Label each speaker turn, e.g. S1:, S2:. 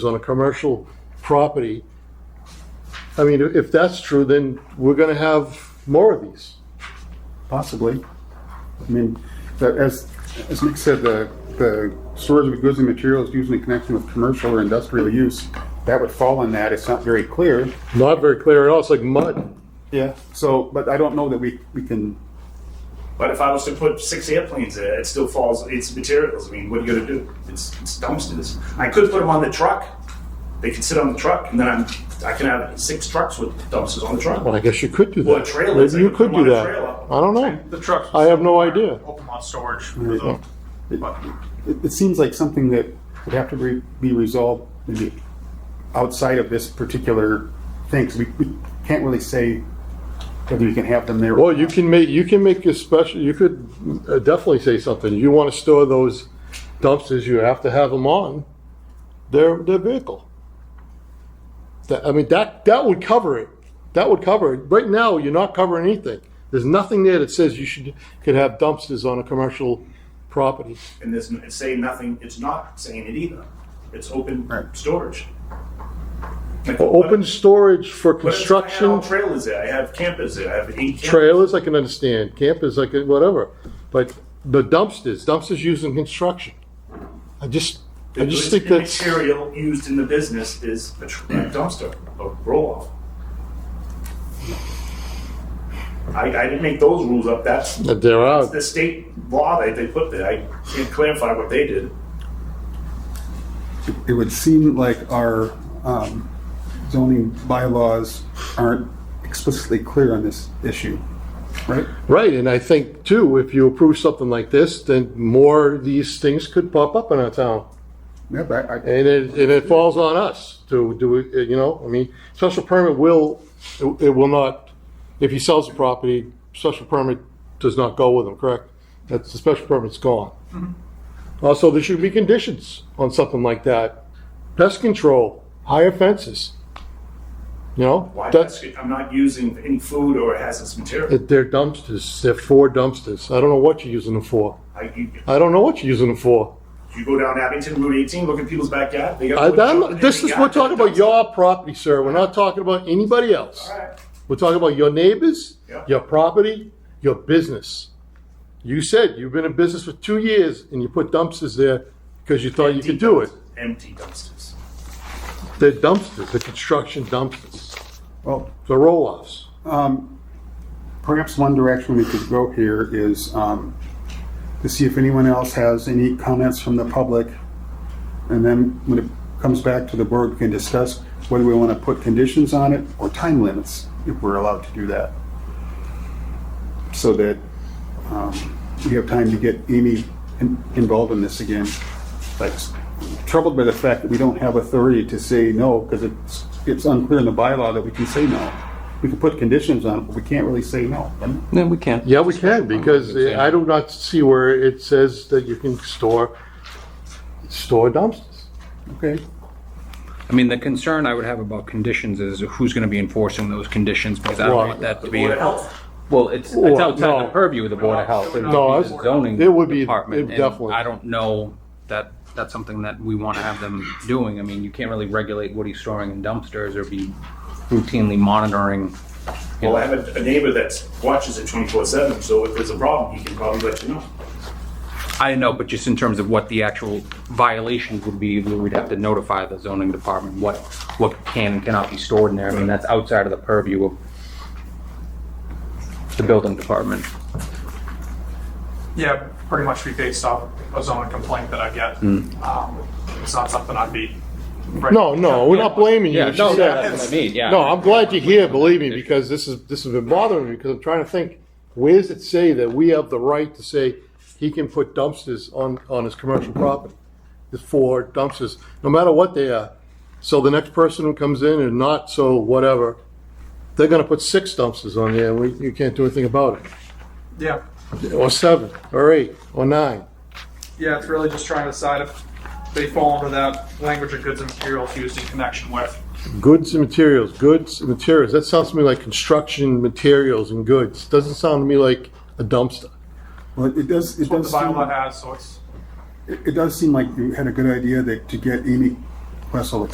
S1: on a commercial property, I mean, if that's true, then we're gonna have more of these.
S2: Possibly. I mean, the- as, as Nick said, the, the storage of goods and materials used in connection with commercial or industrial use, that would fall on that. It's not very clear.
S1: Not very clear at all, it's like mud.
S2: Yeah. So, but I don't know that we, we can,
S3: But if I was to put six airplanes in it, it still falls. It's materials. I mean, what are you going to do? It's, it's dumpsters. I could put them on the truck. They could sit on the truck, and then I'm I can have six trucks with dumpsters on the truck.
S1: Well, I guess you could do that.
S3: Well, trailers,
S1: Maybe you
S3: they could
S1: could
S3: put
S1: do
S3: them on
S1: that.
S3: a
S1: I don't
S4: The
S1: know.
S4: trucks.
S1: I have no idea.
S4: Open lot storage. for the- but
S2: it, it seems like something that would have to re- be resolved maybe outside of this particular thing. 'cause we, we can't really say whether you can have them there.
S1: Well, you can make, you can make your special, you could uh, definitely say something. You wanna store those dumpsters, you have to have them on their, their vehicle. That, I mean, that, that would cover it. That would cover it. Right now, you're not covering anything. There's nothing there that says you should, could have dumpsters on a commercial property.
S3: And there's n- it's saying nothing. It's not saying it either. It's open
S2: Right.
S3: storage. Like, what-
S1: Open storage for
S3: what if I had all
S1: construction,
S3: trailers there. I have campers there. I have eight campers.
S1: trailers, I can understand, campers, I can, whatever. But the dumpsters, dumpsters used in construction. I just, I
S3: The
S1: just
S3: goods
S1: think
S3: and
S1: that's.
S3: material used in the business is a tr- a dumpster, a roll-off. I, I didn't make those rules up, that's
S1: That There are,
S3: the state law that they put there, I can't clarify what they did.
S2: it would seem like our um, zoning bylaws aren't explicitly clear on this issue, right?
S1: right, and I think too, if you approve something like this, then more of these things could pop up in our town.
S2: Yeah, but I, I-
S1: And it, and it falls on us to do it, you know, I mean, special permit will, it it will not, if he sells the property, special permit does not go with him, correct? That's, the special permit's gone. Also, there should be conditions on something like that. Pest control, higher fences, you know?
S3: Why,
S1: that's-
S3: that's- I'm not using any food or hazardous material.
S1: It- They're dumpsters. They're four dumpsters. I don't know what you're using them for.
S3: I, you,
S1: I don't know what you're using them for.
S3: you go down Abington Route eighteen, look at people's backyard, they
S1: I,
S3: got.
S1: I'm- this is, we're talking about your property, sir. We're not talking about anybody else.
S3: Alright,
S1: We're talking about your neighbors,
S3: Yeah.
S1: your property, your business. You said you've been in business for two years and you put dumpsters there because you thought you could do it.
S3: empty dumpsters.
S1: They're dumpsters, they're construction dumpsters,
S2: well,
S1: they're roll-offs.
S2: perhaps one direction we could go here is um, to see if anyone else has any comments from the public. And then when it comes back to the board, we can discuss whether we want to put conditions on it or time limits, if we're allowed to do that. So that um, we have time to get Amy in- involved in this again. Like troubled by the fact that we don't have authority to say no, because it's, it's unclear in the bylaw that we can say no. We can put conditions on it, but we can't really say no.
S5: Then we can't.
S1: Yeah, we can, because I do not see where it says that you can store, store dumpsters.
S2: Okay.
S6: I mean, the concern I would have about conditions is who's going to be enforcing those conditions because I don't
S1: Well,
S6: want that to be.
S3: Board of Health,
S5: Well, it's,
S1: Well,
S5: it's outside
S1: no.
S5: the purview of the Board of Health. It would
S1: No,
S5: be
S1: it's-
S5: the zoning
S1: it would be-
S5: department,
S1: it
S5: and
S1: definitely-
S5: I don't know that, that's something that we want to have them doing. I mean, you can't really regulate what he's storing in dumpsters or be routinely monitoring. you
S3: well, I
S5: know.
S3: have a- a neighbor that watches it twenty-four seven, so if there's a problem, he can probably let you know.
S5: I know, but just in terms of what the actual violations would be, we'd have to notify the zoning department what, what can and cannot be stored in there. I mean, that's outside of the purview of the building department.
S4: Yeah, pretty much be based off a zoning complaint that I get. Um, It's not something I'd be.
S1: No, no, we're not blaming you.
S5: Yeah,
S1: It's
S5: no,
S1: just that-
S5: that's what I mean, yeah.
S1: No, I'm glad you're here, believe me, because this is, this has been bothering me, because I'm trying to think, where does it say that we have the right to say he can put dumpsters on, on his commercial property? There's four dumpsters, no matter what they are. So the next person who comes in and not so whatever, they're gonna put six dumpsters on there, and we, you can't do anything about it.
S4: Yeah,
S1: Or seven, or eight, or nine.
S4: yeah, it's really just trying to decide if they fall under that language of goods and materials used in connection with.
S1: Goods and materials, goods and materials. That sounds to me like construction materials and goods. Doesn't sound to me like a dumpster.
S2: Well, it does, it
S4: It's what the
S2: does, seem-
S4: bylaw has, so it's.
S2: it it does seem like you had a good idea that to get Amy Wessel